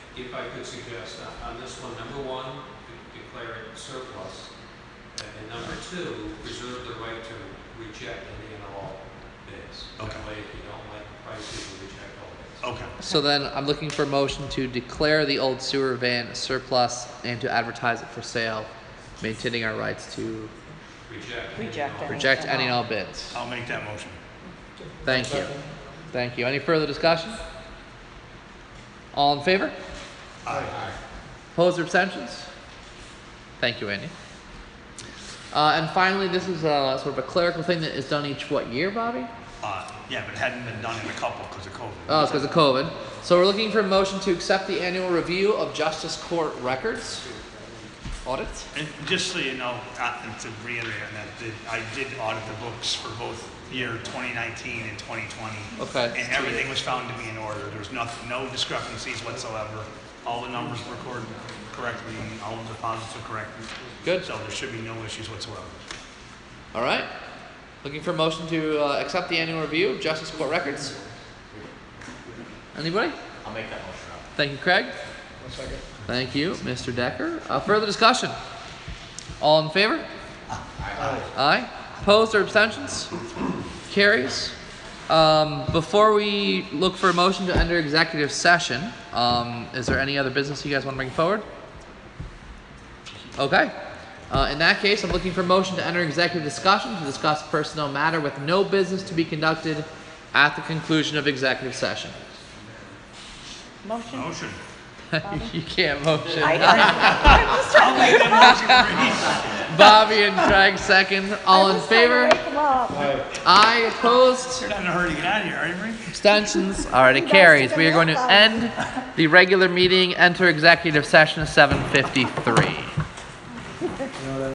if I could suggest, uh, on this one, number one, de- declare it surplus. And and number two, reserve the right to reject any and all bids. Okay. That way, if you don't like the price, you can reject all bids. Okay. So then I'm looking for a motion to declare the old sewer van surplus and to advertise it for sale, maintaining our rights to Reject. any and Reject all. it. reject any and all bids. I'll make that motion. Thank you. Thank you. Any further discussion? All in favor? Aye. Opposed or abstentions? Thank you, Andy. Uh, and finally, this is a sort of a clerical thing that is done each what year, Bobby? Uh, yeah, but it hadn't been done in a couple because of COVID. Oh, it's because of COVID. So we're looking for a motion to accept the annual review of justice court records. Audits? And just so you know, uh, and to reiterate on that, that I did audit the books for both year 2019 and 2020. Okay. And everything was found to be in order. There was nothing, no discrepancies whatsoever. All the numbers were recorded correctly, and all the deposits were correct. Good. So there should be no issues whatsoever. All right. Looking for a motion to uh, accept the annual review of justice court records. Anybody? I'll make that motion. Thank you, Craig. Thank you, Mr. Decker. Uh, further discussion? All in favor? Aye. Opposed or abstentions? Carries. Um, before we look for a motion to enter executive session, um, is there any other business you guys want to bring forward? Okay. Uh, in that case, I'm looking for a motion to enter executive discussion to discuss personnel matter with no business to be conducted at the conclusion of executive session. Motion? Motion. you can't motion. I, I'm just trying I'll make that motion. Bobby and Craig second. All in favor? to wake them up. Aye. Opposed? You're not in a hurry to get out of here, are you, Marie? Abstentions? All right, it carries. We are going to end the regular meeting, enter executive session at 7:53.